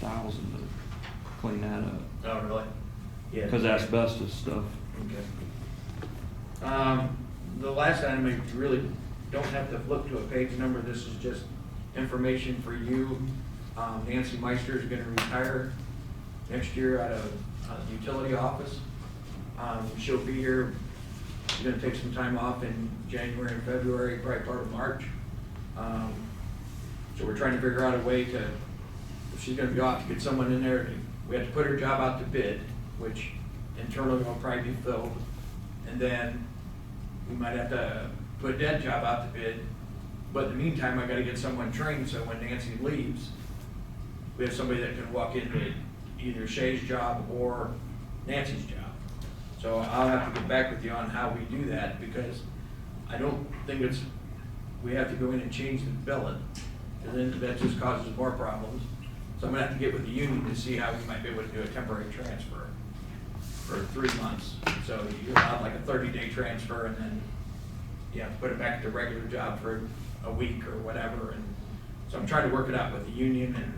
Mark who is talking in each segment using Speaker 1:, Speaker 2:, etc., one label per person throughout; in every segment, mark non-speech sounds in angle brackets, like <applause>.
Speaker 1: thousand to clean that up,
Speaker 2: Oh, really? Yeah.
Speaker 1: cause asbestos stuff.
Speaker 2: Okay. Um, the last item, we really don't have to look to a page number, this is just information for you. Um, Nancy Meister is gonna retire next year out of, uh, the utility office. Um, she'll be here, she's gonna take some time off in January and February, probably part of March. Um, so we're trying to figure out a way to, if she's gonna be off, to get someone in there, we have to put her job out to bid, which internally will probably be filled. And then we might have to put that job out to bid, but in the meantime, I gotta get someone trained, so when Nancy leaves, we have somebody that can walk into either Shay's job or Nancy's job. So I'll have to get back with you on how we do that, because I don't think it's, we have to go in and change the billing, and then that just causes more problems. So I'm gonna have to get with the union to see how we might be able to do a temporary transfer for three months. So you allow like a thirty-day transfer, and then you have to put it back at the regular job for a week or whatever, and so I'm trying to work it out with the union and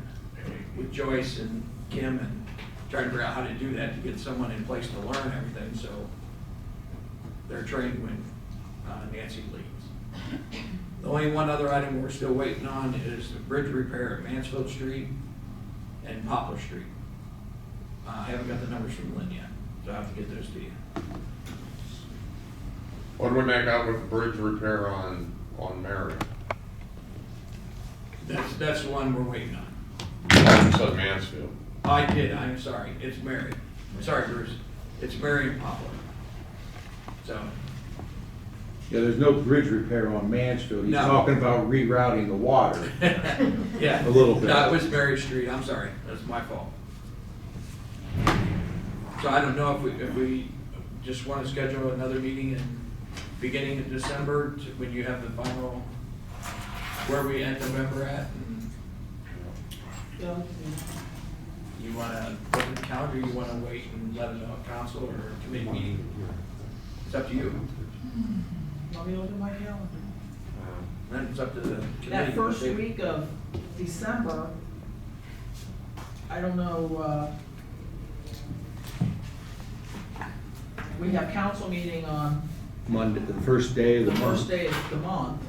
Speaker 2: with Joyce and Kim, and trying to figure out how to do that to get someone in place to learn everything, so they're trained when uh, Nancy leaves. The only one other item we're still waiting on is the bridge repair at Mansfield Street and Poplar Street. Uh, I haven't got the numbers from Lynn yet, so I have to get those to you.
Speaker 3: What do we make out with the bridge repair on, on Mary?
Speaker 2: That's, that's the one we're waiting on.
Speaker 3: You said Mansfield.
Speaker 2: I did, I'm sorry, it's Mary. I'm sorry, Bruce, it's Mary and Poplar. So, <laughs>
Speaker 4: Yeah, there's no bridge repair on Mansfield. He's
Speaker 2: No.
Speaker 4: talking about rerouting the water.
Speaker 2: yeah.
Speaker 4: A little bit.
Speaker 2: No, it was Mary Street, I'm sorry, that's my fault. So I don't know if we, if we just want to schedule another meeting in beginning of December, to- when you have the final, where we end November at, and
Speaker 5: Yeah,
Speaker 2: you want to look at the calendar, you want to wait and let it know at council or committee meeting? It's up to you,
Speaker 5: let me look at my calendar.
Speaker 2: then it's up to the committee.
Speaker 5: That first
Speaker 2: They-
Speaker 5: week of December, I don't know, uh, we have council meeting on
Speaker 4: Monday, the first day of the
Speaker 5: the
Speaker 4: month.
Speaker 5: first day of the month.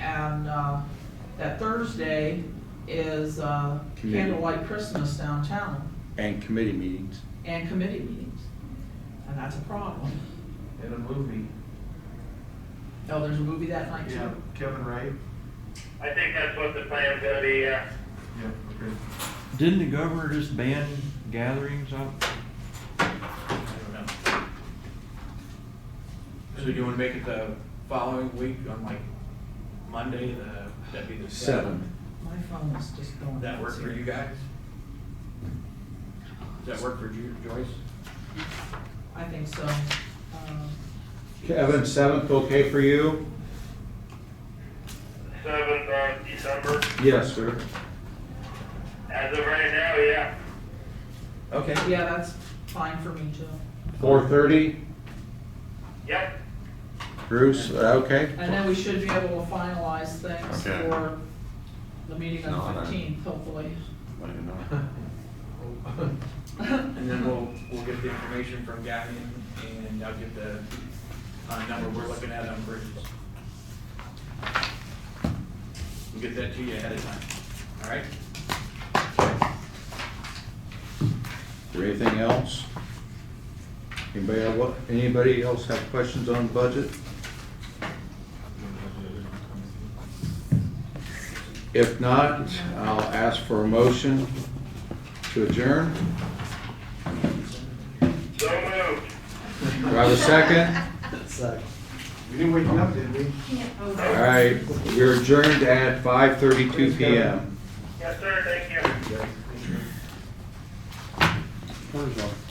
Speaker 5: And, uh, that Thursday is, uh,
Speaker 4: Committee.
Speaker 5: candlelight Christmas downtown
Speaker 4: And committee meetings.
Speaker 5: and committee meetings. And that's a problem.
Speaker 6: in a movie.
Speaker 5: Oh, there's a movie that night too.
Speaker 6: Yeah, Kevin Wright.
Speaker 7: I think that's what the plan's gonna be, uh,
Speaker 6: Yeah, okay.
Speaker 1: Didn't the governor just ban gatherings out?
Speaker 2: I don't know. So do you wanna make it the following week on like Monday, the, that'd be the seventh?
Speaker 4: Seventh.
Speaker 5: My phone is just going.
Speaker 2: Would that work for
Speaker 5: crazy.
Speaker 2: you guys? Does that work for you, Joyce?
Speaker 5: I think so. Um,
Speaker 4: Kevin, seventh, okay for you?
Speaker 7: seventh of December.
Speaker 4: Yes, sir.
Speaker 7: As of right now, yeah.
Speaker 2: Okay.
Speaker 5: Yeah, that's fine for me too.
Speaker 4: Four thirty,
Speaker 7: Yep.
Speaker 4: Bruce, uh, okay?
Speaker 5: And then we should be able to finalize things
Speaker 3: Okay.
Speaker 5: for the meeting on
Speaker 3: No,
Speaker 5: the
Speaker 3: I-
Speaker 5: fifteenth, hopefully.
Speaker 3: Let you know.
Speaker 2: And then we'll, we'll get the information from Gavin and I'll get the, uh, number we're looking at on bridges. We'll get that to you ahead of time, all right?
Speaker 4: Or anything else? Anybody, have what- anybody else have questions on budget? If not, I'll ask for a motion to adjourn.
Speaker 7: So moved.
Speaker 4: Do I have a second?
Speaker 6: We didn't wake you up, did we?
Speaker 4: All right, we're adjourned at five thirty-two PM.
Speaker 7: Yes, sir, thank you.
Speaker 4: Where's our-